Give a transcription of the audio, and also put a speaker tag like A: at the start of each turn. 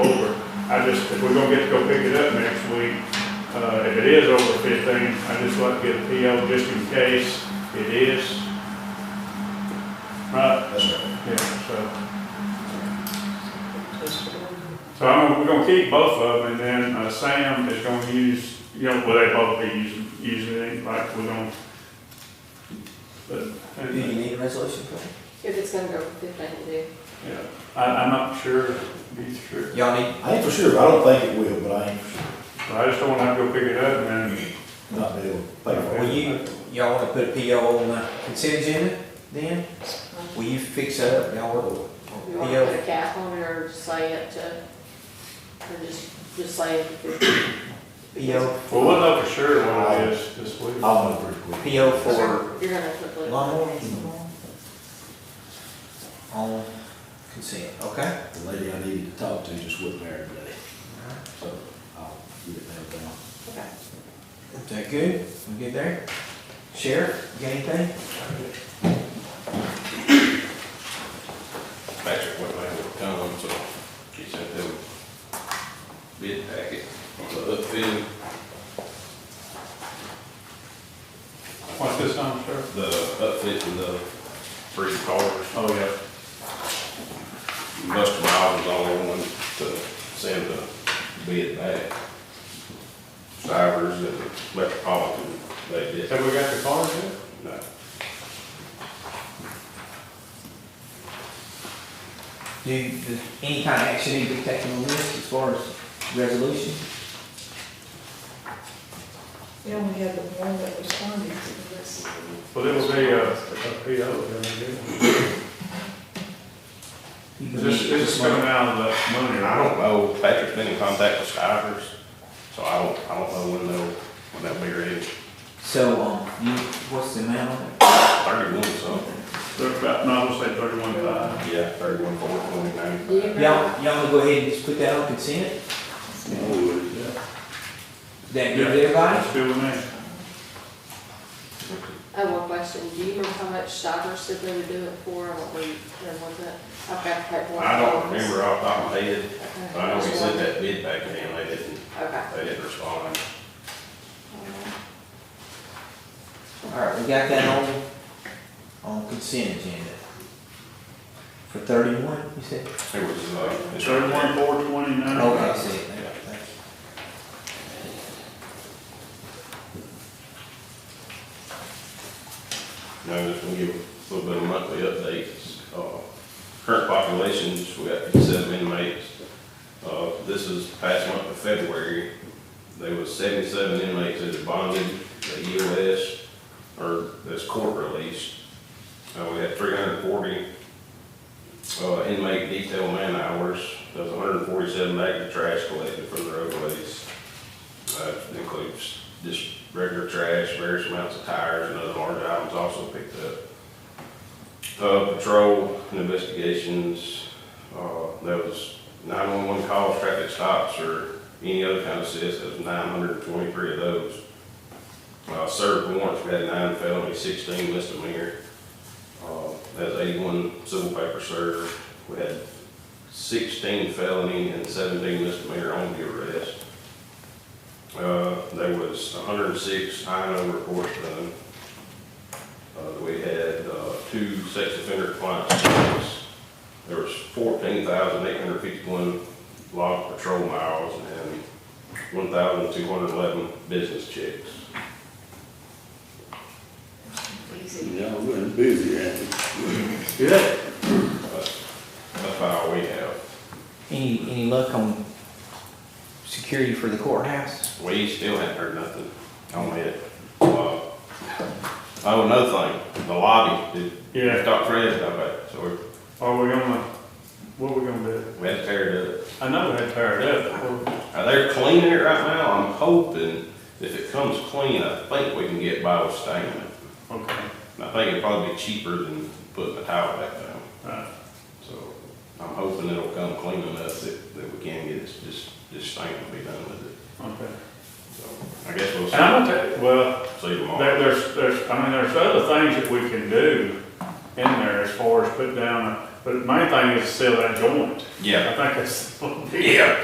A: I just, if we're gonna get to go pick it up next week, uh, if it is over fifteen, I just like to get a PO just in case it is. Right,
B: That's right.
A: yeah, so, so I'm, gonna- we're gonna keep both of them, and then, uh, Sam is gonna use, you know, will they both be using, using it, like, we're gonna. But,
B: Do
A: and,
B: you need a resolution for that?
C: If it's gonna go over fifteen, you do.
A: yeah, I, I'm not sure, be sure.
B: Y'all need,
D: I ain't for sure, I don't think it will, but I ain't for sure,
A: But I just don't wanna have to go pick it up and then.
D: not be able to pay for it.
B: will you, y'all wanna put a PO on the consent agenda then? Will you fix that up, y'all will,
C: You
B: or
C: wanna
B: PO?
C: put a cap on it or just say it to, or just, just say it.
B: PO,
A: Well, we'll know for sure what it is this week.
D: I'll move pretty quick.
B: PO for
C: You're gonna quickly.
B: lawnmower? On consent, okay?
D: The lady I needed to talk to just wasn't there today, so I'll get it nailed down.
C: Okay.
B: Is that good? We good there? Sheriff, you got anything?
E: Patrick went around with Tom, so he sent them bid packet on the upfit,
A: What's this on, sir?
E: the upfit and the three cars.
A: Oh, yeah.
E: Must Miles was the only one to send the bid back. Cybers and Metropolitan, they did.
A: Have we got the cars yet?
E: No.
B: Do, does any kind of action need to be taken on this as far as resolution?
F: Yeah, we had the one that responded to this.
A: Well, it will be a, a PO, then, yeah. This, this is coming out of the money, I
E: And I
A: don't,
E: don't know, Patrick's been in contact with Cybers, so I don't, I don't know when they'll, when they'll be ready.
B: So, um, you, what's the amount on it?
E: Thirty-one something.
A: they're about, no, I'll say thirty-one five.
E: Yeah, thirty-one, four, twenty-nine.
C: Do you remember?
B: Y'all, y'all wanna go ahead and just put that on consent? That good with everybody?
A: That's good with me.
C: I have one question. Do you remember how much Shivers said they would do it for? I don't remember, was it? I've got the paperwork.
E: I don't remember off the top of my head,
C: Okay.
E: I know we sent that bid back in, they didn't,
C: Okay.
E: they didn't respond.
B: Alright, we got that on, on consent agenda. For thirty-one, you said?
E: It was, uh, it's right
A: Thirty-one, four, twenty-nine.
B: Okay, I see it now.
E: Yeah.
B: Thank you.
E: there. No, just gonna give a little bit of monthly updates. Uh, Current populations, we got fifty-seven inmates. Uh, This is past month of February, there was seventy-seven inmates that had bonded, the EOS, or that's court released. Uh, We had three hundred and forty uh, inmate detail man hours, that's hundred and forty-seven bags of trash collected from the roadways. Uh, it includes just regular trash, various amounts of tires and other large items also picked up. Uh, patrol and investigations, uh, there was nine-one-one calls, traffic stops, or any other kind of assist, there was nine hundred and twenty-three of those. Uh, served warrants, we had nine felony, sixteen misdemeanor. Uh, that's eighty-one civil paper served, we had sixteen felony and seventeen misdemeanor on the arrest. Uh, there was hundred and six INO reports done. Uh, we had, uh, two sex offender compliance hearings. There was fourteen thousand eight hundred fifty-one log patrol miles and one thousand two hundred eleven business checks.
C: Easy.
G: Yeah, we're busy, ain't we?
A: Yeah.
E: That's, that's about all we have.
B: Any, any luck on security for the courthouse?
E: We still haven't heard nothing on it. Uh, Oh, another thing, the lobby,
A: Yeah,
E: did, Dr. Fred about that, so
A: are we gonna, what are we gonna do?
E: we- we had to tear it up.
A: I know they tired up, but
E: Uh, They're cleaning it right now. I'm hoping if it comes clean, I think we can get by with staining it.
A: we're- okay,
E: And I think it'd probably be cheaper than putting the tile back down.
A: right.
E: So I'm hoping it'll come clean enough that, that we can get it, just, just stain will be done with it.
A: okay.
E: So I guess we'll
A: And I'm
E: see,
A: gonna tell you, well,
E: see tomorrow.
A: There, there's, there's, I mean, there's other things that we can do in there as far as put down, a- but the main thing is seal that joint. I
E: Yeah.
A: think that's.
E: Yeah.